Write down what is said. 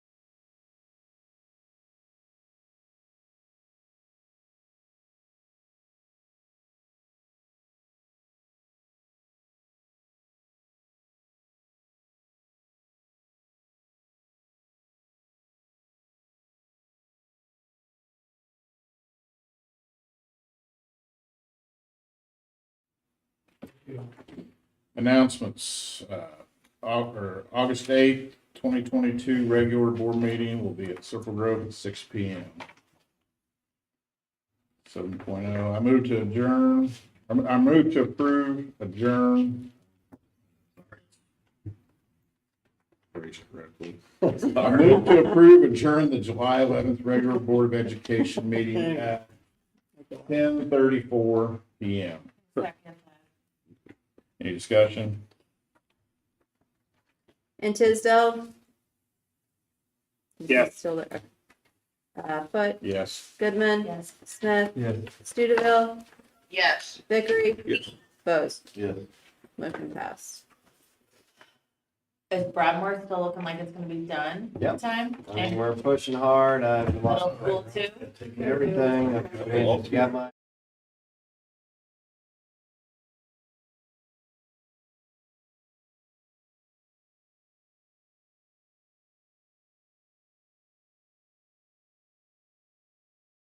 Announcements, uh, Au- or August eighth, twenty twenty-two, regular board meeting will be at Circle Grove at six P M. Seven oh. I move to adjourn, I I move to approve, adjourn. Rachel, right, please. I move to approve adjourn the July eleventh regular Board of Education meeting at ten thirty-four P M. Second. Any discussion? And Tisdale? Yes. Still there. Uh, Foote, Yes. Goodman? Yes. Smith? Yes. Studeville? Yes. Vickery? Yes. Bose? Yes. Motion passed. Is Bradmore still looking like it's gonna be done in Yep. time? I mean, And we're pushing hard. I've middle lost school too? everything. I've got my